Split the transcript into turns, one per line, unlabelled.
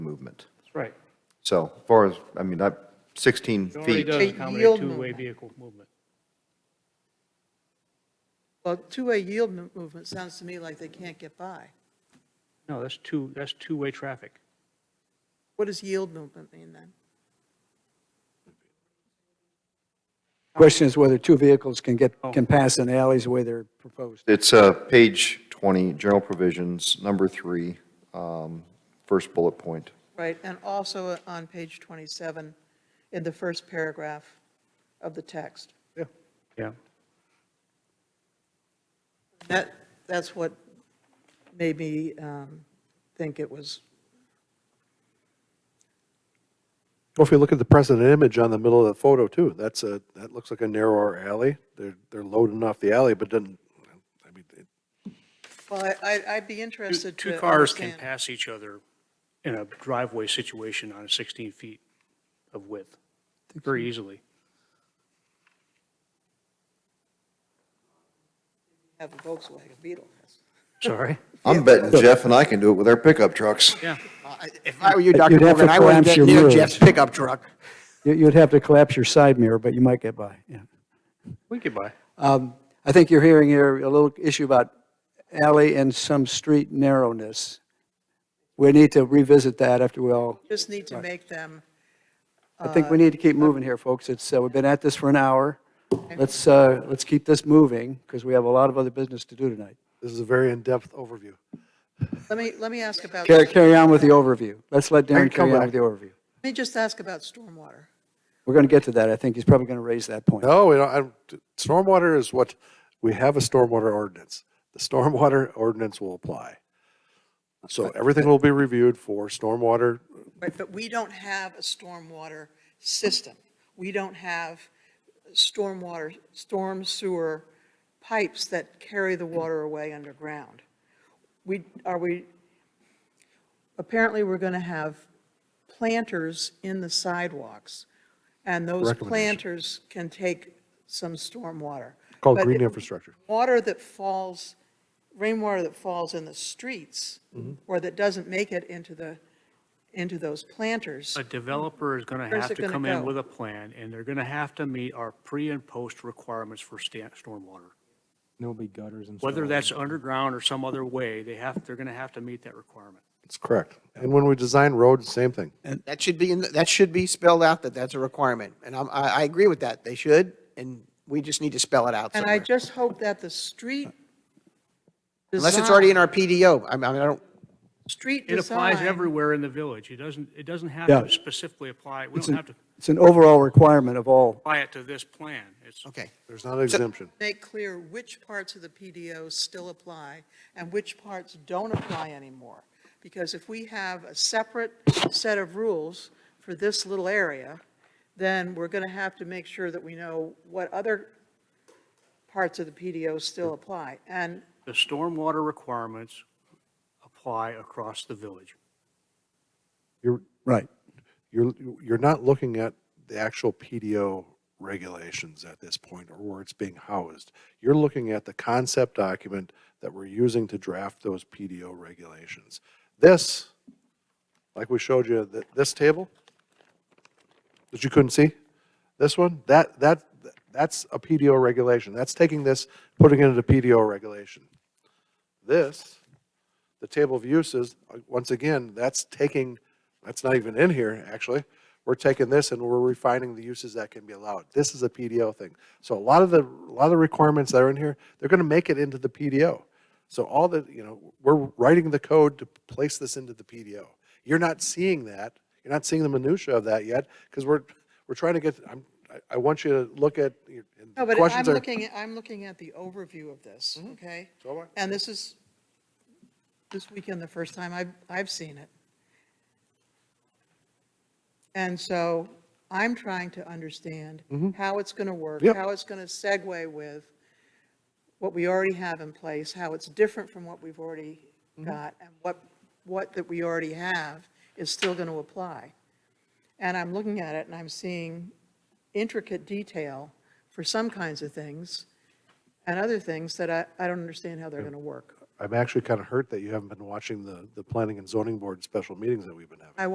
movement.
That's right.
So as far as, I mean, I, 16
It already
feet,
does
A
accommodate
yield
two-way
movement.
vehicle movement.
Well, two-way yield mo- movement sounds to me like they can't get by.
No, that's two, that's two-way traffic.
What does yield movement mean then?
Question is whether two vehicles can get,
Oh.
can pass in alleys the way they're proposed.
it's uh, page 20, general provisions, number three, um, first bullet point.
Right, and also on page 27, in the first paragraph of the text.
Yeah.
That, that's what made me um, think it was,
Well, if you look at the present image on the middle of the photo too, that's a, that looks like a narrower alley. They're, they're loading off the alley, but doesn't, I mean, it-
well, I- I, I'd be interested to
Two cars can
understand.
pass each other in a driveway situation on 16 feet of width, very easily.
Have a Volkswagen Beetle.
Sorry?
I'm betting Jeff and I can do it with our pickup trucks.
Yeah.
If I were you,
But
Dr.
you'd have
Morgan,
to
I wouldn't
collapse
get
your
near
mirrors.
Jeff's pickup truck.
You- You'd have to collapse your side mirror, but you might get by, yeah.
We could buy.
Um, I think you're hearing here a little issue about alley and some street narrowness. We need to revisit that after we all,
Just need to make them,
I think we need to keep moving here, folks. It's, uh, we've been at this for an hour. Let's, uh, let's keep this moving, because we have a lot of other business to do tonight.
this is a very in-depth overview.
let me, let me ask about.
Carry, carry on with the overview. Let's let Darren
come
carry on
back.
with the overview.
Let me just ask about stormwater.
We're going to get to that. I think he's probably going to raise that point.
No, we don't, I, stormwater is what, we have a stormwater ordinance. The stormwater ordinance will apply. So everything will be reviewed for stormwater.
Right, but we don't have a stormwater system. We don't have stormwater, storm sewer pipes that carry the water away underground. We, are we, apparently we're going to have planters in the sidewalks, and those
Recommendation.
planters can take some stormwater.
Called
But
green
it-
infrastructure.
Water that falls, rainwater that falls in the streets, or that doesn't make it into the, into those planters.
A developer is going to
Where's
have
it
to
gonna
come in
go?
with a plan, and they're going to have to meet our pre and post requirements for sta- stormwater.
There'll be gutters and.
Whether
stuff.
that's underground or some other way, they have, they're going to have to meet that requirement.
That's correct. And when we design roads, same thing.
That should be, in the- that should be spelled out that that's a requirement. And I'm, I, I agree with that. They should, and we just need to spell it out
And I
somewhere.
just hope that the street
Unless it's already in
design-
our PDO. I mean, I don't,
Street
It applies
design-
everywhere in the village. It doesn't, it doesn't have
Yeah.
to specifically apply, we
It's
don't
an,
have to
it's an overall requirement of all.
apply it to this plan. It's,
okay.
There's not an exemption.
Make clear which parts of the PDO still apply and which parts don't apply anymore. Because if we have a separate set of rules for this little area, then we're going to have to make sure that we know what other parts of the PDO still apply. And
the stormwater requirements apply across the village.
You're,
Right.
you're, you're not looking at the actual PDO regulations at this point or where it's being housed. You're looking at the concept document that we're using to draft those PDO regulations. This, like we showed you, th- this table that you couldn't see, this one, that, that, that's a PDO regulation. That's taking this, putting it into PDO regulation. This the table of uses, uh, once again, that's taking, that's not even in here, actually. We're taking this and we're refining the uses that can be allowed. This is a PDO thing. So a lot of the, a lot of the requirements that are in here, they're gonna make it into the PDO. So all the, you know, we're writing the code to place this into the PDO. You're not seeing that, you're not seeing the minutia of that yet, because we're, we're trying to get, I'm, I- I want you to look at, your- and
No, but
the
I'm
questions are. Mm-hmm.
looking, at- I'm looking at the overview of this, okay?
So am I.
And this is, this weekend, the first time I've, I've seen it. And so I'm trying to understand how it's going to work,
Mm-hmm. Yep.
how it's going to segue with what we already have in place, how it's different from what we've already
Mm-hmm.
got, and what, what that we already have is still going to apply. And I'm looking at it and I'm seeing intricate detail for some kinds of things and other things that I, I don't understand how they're going to work.
I'm actually kind of hurt that you haven't been watching the, the planning and zoning board special meetings that we've been having.